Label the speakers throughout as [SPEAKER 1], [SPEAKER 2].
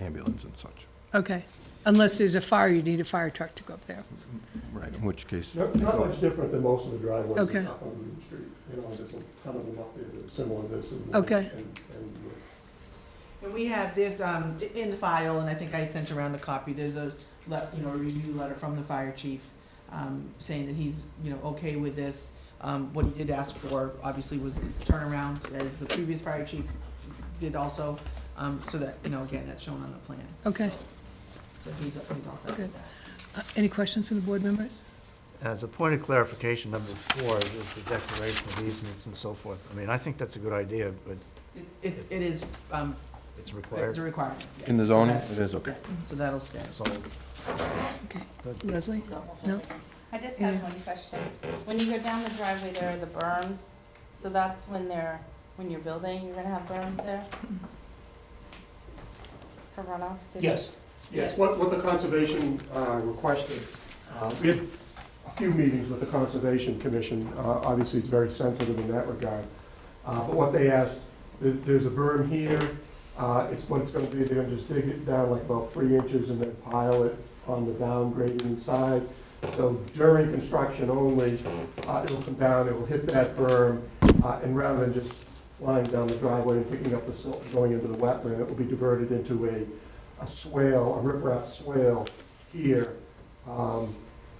[SPEAKER 1] ambulance and such,
[SPEAKER 2] Okay, unless there's a fire, you need a fire truck to go up there.
[SPEAKER 1] right, in which case. they
[SPEAKER 3] Not, not
[SPEAKER 1] go-
[SPEAKER 3] much different than most of the driveways up
[SPEAKER 2] Okay.
[SPEAKER 3] on Union Street. You know, there's a ton of them up there that are similar to this and.
[SPEAKER 2] Okay.
[SPEAKER 3] and- and, uh,
[SPEAKER 4] And we have this, um, i- in the file, and I think I sent around the copy, there's a, le- you know, a review letter from the fire chief, um, saying that he's, you know, okay with this. Um, what he did ask for, obviously, was turnaround, as the previous fire chief did also, um, so that, you know, again, that's shown on the plan.
[SPEAKER 2] Okay,
[SPEAKER 4] So he's, he's all set
[SPEAKER 2] Okay.
[SPEAKER 4] with that.
[SPEAKER 2] Uh, any questions from the board members?
[SPEAKER 5] As a point of clarification, number four is the declaration of easements and so forth. I mean, I think that's a good idea, but
[SPEAKER 4] It- It's, it is, um,
[SPEAKER 5] it's
[SPEAKER 4] it's a
[SPEAKER 5] required.
[SPEAKER 4] requirement. yeah.
[SPEAKER 1] In the
[SPEAKER 4] So
[SPEAKER 1] zoning,
[SPEAKER 4] that-
[SPEAKER 1] it is okay.
[SPEAKER 4] So that'll stay.
[SPEAKER 5] So
[SPEAKER 2] Okay, Leslie? No?
[SPEAKER 6] I just have
[SPEAKER 2] Yeah.
[SPEAKER 6] one question. When you go down the driveway, there are the berms, so that's when they're, when you're building, you're gonna have berms there? For runoff? so-
[SPEAKER 3] Yes, yes, what, what the conservation uh, requested, uh, we had a few meetings with the Conservation Commission, Uh, obviously it's very sensitive in that regard, Uh, but what they asked, there- there's a berm here, Uh, it's what it's gonna be, they're gonna just dig it down like about three inches and then pile it on the downgrading side. So during construction only, uh, it'll come down, it will hit that berm, uh, and rather than just flying down the driveway and picking up the silt and going into the wetland, it will be diverted into a a swale, a riprap swale here. Um,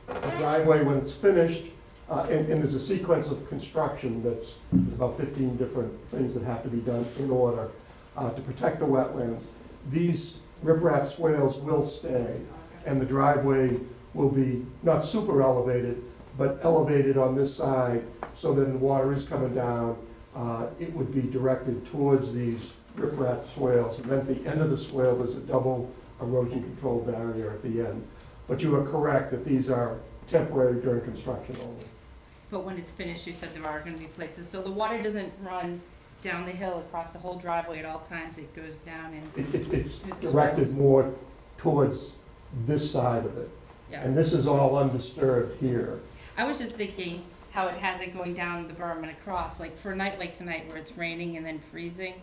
[SPEAKER 3] The driveway, when it's finished, uh, and, and there's a sequence of construction that's, there's about fifteen different things that have to be done in order uh, to protect the wetlands. These riprap swales will stay, and the driveway will be not super elevated, but elevated on this side, so that the water is coming down. Uh, It would be directed towards these riprap swales, and then at the end of the swale, there's a double erosion control barrier at the end. But you are correct that these are temporary during construction only.
[SPEAKER 6] But when it's finished, you said there are gonna be places, so the water doesn't run down the hill across the whole driveway at all times, it goes down and,
[SPEAKER 3] It- it- It's directed more towards this side of it,
[SPEAKER 6] yeah.
[SPEAKER 3] and this is all undisturbed here.
[SPEAKER 6] I was just thinking how it has it going down the berm and across, like for a night like tonight where it's raining and then freezing,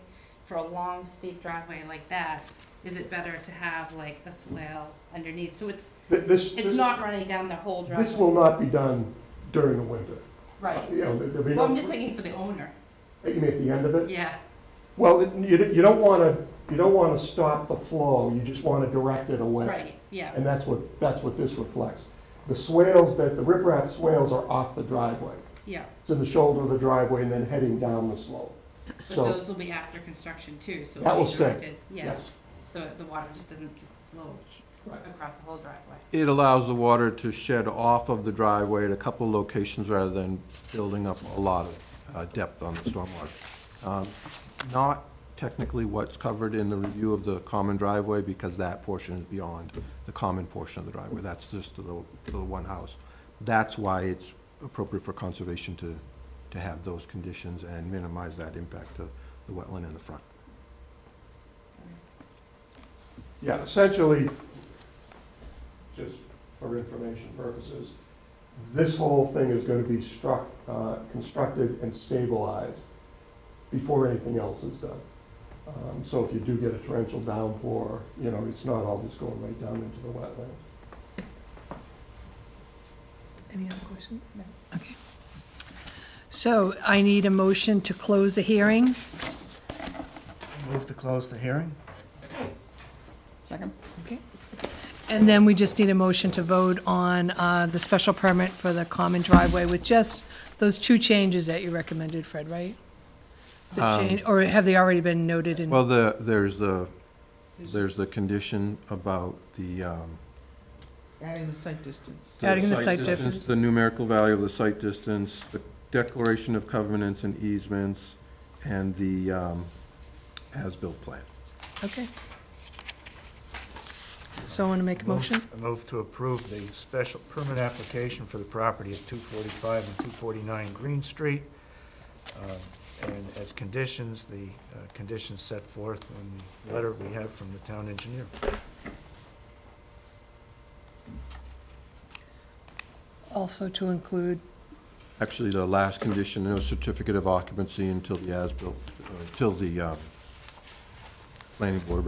[SPEAKER 6] for a long steep driveway like that, is it better to have like a swale underneath? So it's,
[SPEAKER 3] Th- This,
[SPEAKER 6] it's
[SPEAKER 3] this-
[SPEAKER 6] not running down the whole
[SPEAKER 3] this
[SPEAKER 6] driveway.
[SPEAKER 3] will not be done during the winter.
[SPEAKER 6] Right.
[SPEAKER 3] You know, there- there'll be
[SPEAKER 6] Well, I'm
[SPEAKER 3] no,
[SPEAKER 6] just thinking for the owner,
[SPEAKER 3] you mean at the end of it?
[SPEAKER 6] yeah.
[SPEAKER 3] Well, it- you, don't- you don't wanna, you don't wanna stop the flow, you just wanna direct it away.
[SPEAKER 6] Right, yeah,
[SPEAKER 3] And that's what, that's what this reflects. The swales that, the riprap swales are off the driveway.
[SPEAKER 6] yeah.
[SPEAKER 3] It's in the shoulder of the driveway and then heading down the slope.
[SPEAKER 6] But
[SPEAKER 3] So-
[SPEAKER 6] those will be after construction too, so
[SPEAKER 3] That will
[SPEAKER 6] it'll be
[SPEAKER 3] stay,
[SPEAKER 6] directed, yeah.
[SPEAKER 3] Yes.
[SPEAKER 6] So the water just doesn't flow
[SPEAKER 3] Right.
[SPEAKER 6] across the whole driveway.
[SPEAKER 1] It allows the water to shed off of the driveway at a couple of locations rather than building up a lot of uh, depth on the stormwater. Um, Not technically what's covered in the review of the common driveway, because that portion is beyond the common portion of the driveway. That's just to the, to the one house. That's why it's appropriate for conservation to, to have those conditions and minimize that impact to the wetland in the front.
[SPEAKER 3] Yeah, essentially, just for information purposes, this whole thing is gonna be struck, uh, constructed and stabilized before anything else is done. Um, So if you do get a torrential downpour, you know, it's not all just going right down into the wetlands.
[SPEAKER 2] Any other questions? No. Okay. So I need a motion to close the hearing.
[SPEAKER 5] move to close the hearing?
[SPEAKER 2] Second. Okay. And then we just need a motion to vote on uh, the special permit for the common driveway with just those two changes that you recommended, Fred, right? The change- Or have they already been noted in?
[SPEAKER 1] Well, the, there's the, there's the condition about the, um,
[SPEAKER 4] Adding the site distance.
[SPEAKER 2] Adding the site difference.
[SPEAKER 1] The numerical value of the site distance, the declaration of covenants and easements, and the um, as-built plan.
[SPEAKER 2] Okay. So I want to make a motion?
[SPEAKER 5] I move to approve the special permit application for the property at two forty-five and two forty-nine Green Street. um, And as conditions, the uh, conditions set forth in the letter we have from the town engineer.
[SPEAKER 2] Also to include,
[SPEAKER 1] Actually, the last condition, no certificate of occupancy until the as-built, uh, until the um, uh, planning board